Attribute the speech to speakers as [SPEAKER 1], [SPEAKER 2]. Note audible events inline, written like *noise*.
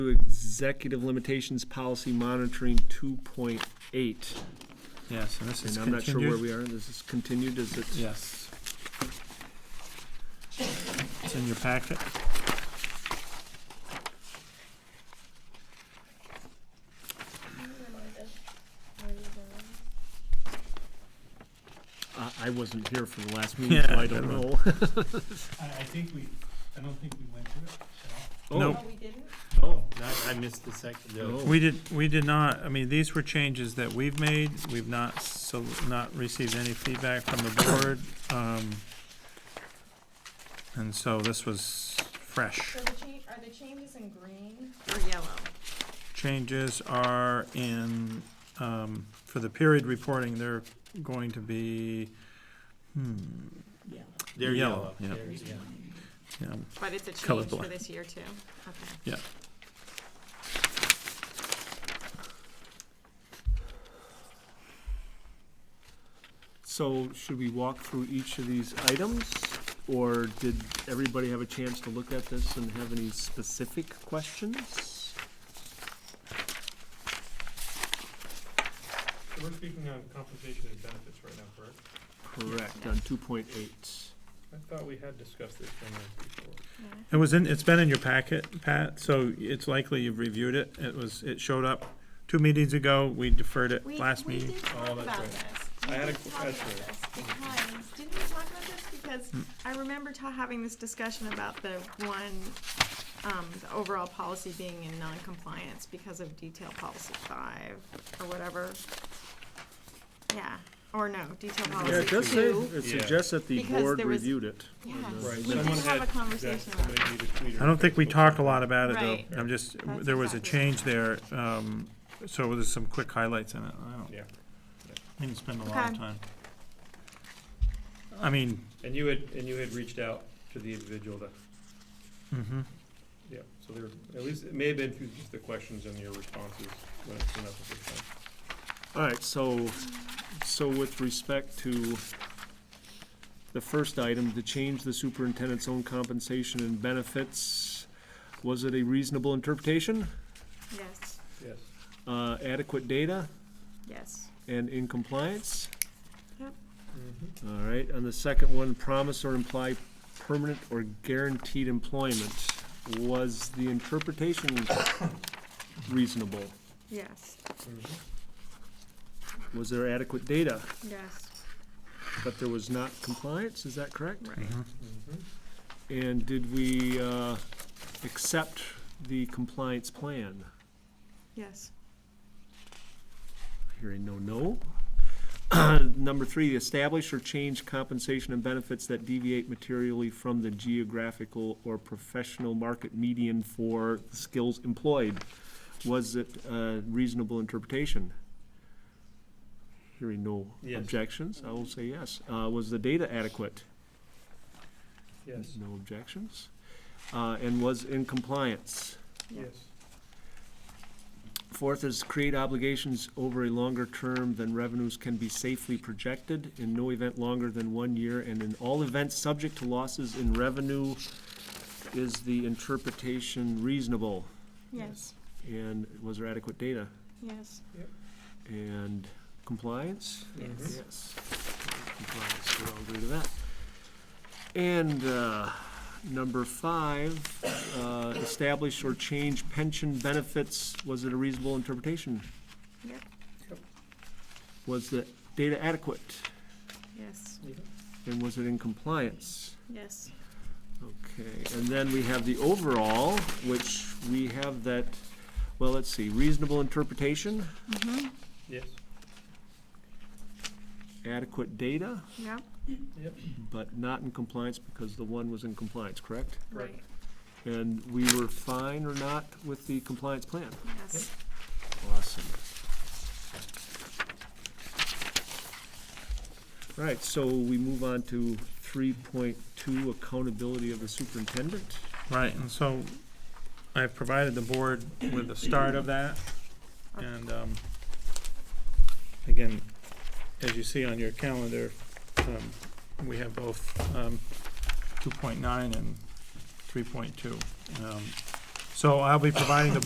[SPEAKER 1] Executive Limitations Policy Monitoring 2.8.
[SPEAKER 2] Yes, and this is
[SPEAKER 1] And I'm not sure where
[SPEAKER 2] continued.
[SPEAKER 1] we are. This is continued, is it?
[SPEAKER 2] Yes. It's in your packet.
[SPEAKER 1] Uh, I- I wasn't here for the
[SPEAKER 2] *laughs*
[SPEAKER 1] last meeting, so
[SPEAKER 2] Yeah,
[SPEAKER 1] I don't
[SPEAKER 2] I
[SPEAKER 1] know.
[SPEAKER 3] I, I think we, I don't think we went through it at
[SPEAKER 1] Oh,
[SPEAKER 2] Nope.
[SPEAKER 4] No, we didn't?
[SPEAKER 3] all. No, I missed the second,
[SPEAKER 1] no.
[SPEAKER 2] We did, we did not, I mean, these were changes that we've made. We've not, so, not received any feedback from the board. um, And so this was fresh.
[SPEAKER 4] So the change, are the changes in green or yellow?
[SPEAKER 2] Changes are in, um, for the period reporting, they're going to be, hmm,
[SPEAKER 4] Yellow.
[SPEAKER 3] They're
[SPEAKER 2] Yellow,
[SPEAKER 3] yellow.
[SPEAKER 2] yeah.
[SPEAKER 3] They're yellow.
[SPEAKER 2] yeah,
[SPEAKER 4] But it's a change for
[SPEAKER 2] Colorblind.
[SPEAKER 4] this year too? Okay.
[SPEAKER 1] So should we walk through each of these items? Or did everybody have a chance to look at this and have any specific questions?
[SPEAKER 3] We're speaking on compensation and benefits right now, correct?
[SPEAKER 1] Correct, on 2.8.
[SPEAKER 3] I thought we had discussed this one before.
[SPEAKER 2] It was in, it's been in your packet, Pat, so it's likely you've reviewed it. It was, it showed up two meetings ago. We deferred it
[SPEAKER 4] We-
[SPEAKER 2] last
[SPEAKER 4] We
[SPEAKER 2] meeting.
[SPEAKER 4] did talk
[SPEAKER 3] Oh, that's
[SPEAKER 4] about
[SPEAKER 3] right.
[SPEAKER 4] this.
[SPEAKER 3] I
[SPEAKER 4] We
[SPEAKER 3] had a
[SPEAKER 4] did talk about
[SPEAKER 3] question.
[SPEAKER 4] this Because, didn't we talk about this? Because
[SPEAKER 1] Hmm.
[SPEAKER 4] I remember ta- having this discussion about the one, um, the overall policy being in non-compliance because of detail policy five or whatever. Yeah, or no, detail
[SPEAKER 1] Yeah,
[SPEAKER 4] policy
[SPEAKER 1] it does say,
[SPEAKER 4] two.
[SPEAKER 1] it
[SPEAKER 3] Yeah.
[SPEAKER 1] suggests that the
[SPEAKER 4] Because
[SPEAKER 1] board
[SPEAKER 4] there was-
[SPEAKER 1] reviewed it.
[SPEAKER 4] Yeah,
[SPEAKER 1] And, uh,
[SPEAKER 3] Right,
[SPEAKER 4] we did
[SPEAKER 3] someone
[SPEAKER 4] have a
[SPEAKER 3] had-
[SPEAKER 4] conversation about it.
[SPEAKER 2] I don't think we talked a lot about it,
[SPEAKER 4] Right.
[SPEAKER 2] though. I'm just,
[SPEAKER 4] That's
[SPEAKER 2] there was a
[SPEAKER 4] exactly right.
[SPEAKER 2] change there, um, so there's some quick highlights in it. I don't,
[SPEAKER 3] Yeah,
[SPEAKER 2] I didn't spend a lot
[SPEAKER 4] Okay.
[SPEAKER 2] of time. I mean,
[SPEAKER 3] and you had, and you had reached out to the individual that,
[SPEAKER 2] mhm.
[SPEAKER 3] yeah, so there, at least, it may have been through just the questions and your responses when it came up at the time.
[SPEAKER 1] All right, so, so with respect to the first item, to change the superintendent's own compensation and benefits, was it a reasonable interpretation,
[SPEAKER 4] Yes,
[SPEAKER 3] Yes.
[SPEAKER 1] uh, adequate data,
[SPEAKER 4] yes.
[SPEAKER 1] and in compliance?
[SPEAKER 4] Yep. Mm-hmm.
[SPEAKER 1] All right, on the second one, promise or imply permanent or guaranteed employment, was the interpretation reasonable?
[SPEAKER 4] Yes,
[SPEAKER 3] Mm-hmm.
[SPEAKER 1] Was there adequate data,
[SPEAKER 4] yes,
[SPEAKER 1] but there was not compliance, is that correct?
[SPEAKER 4] right.
[SPEAKER 3] Mm-hmm.
[SPEAKER 4] Mm-hmm.
[SPEAKER 1] And did we uh, accept the compliance plan?
[SPEAKER 4] Yes,
[SPEAKER 1] Hearing no, no. *clears throat* Number three, establish or change compensation and benefits that deviate materially from the geographical or professional market median for skills employed. Was it a reasonable interpretation? Hearing no
[SPEAKER 3] Yes.
[SPEAKER 1] objections, I will say yes. Uh, Was the data adequate?
[SPEAKER 3] Yes,
[SPEAKER 1] No objections. Uh, And was in compliance?
[SPEAKER 4] yes,
[SPEAKER 3] yes.
[SPEAKER 1] Fourth is create obligations over a longer term than revenues can be safely projected, in no event longer than one year, and in all events subject to losses in revenue. Is the interpretation reasonable?
[SPEAKER 4] yes,
[SPEAKER 1] And was there adequate data?
[SPEAKER 4] yes,
[SPEAKER 1] And compliance?
[SPEAKER 4] yes.
[SPEAKER 3] Mm-hmm.
[SPEAKER 1] Yes. Compliance, we all agree to that. And, uh, number five, uh, establish or change pension benefits, was it a reasonable interpretation?
[SPEAKER 4] Yep.
[SPEAKER 3] Yep.
[SPEAKER 1] Was the data adequate,
[SPEAKER 4] Yes,
[SPEAKER 1] and was it in compliance?
[SPEAKER 4] yes,
[SPEAKER 1] Okay, and then we have the overall, which we have that, well, let's see, reasonable interpretation,
[SPEAKER 4] mm-hmm,
[SPEAKER 3] Yes.
[SPEAKER 1] adequate data,
[SPEAKER 4] yep,
[SPEAKER 1] but not in compliance because the one was in compliance, correct?
[SPEAKER 4] right,
[SPEAKER 1] And we were fine or not with the compliance plan?
[SPEAKER 4] yes.
[SPEAKER 1] Awesome. All right, so we move on to three point two, accountability of the superintendent.
[SPEAKER 2] right, and so I've provided the board with the start of that. And, um, again, as you see on your calendar, um, we have both, um, two point nine and three point two. Um, so I'll be providing the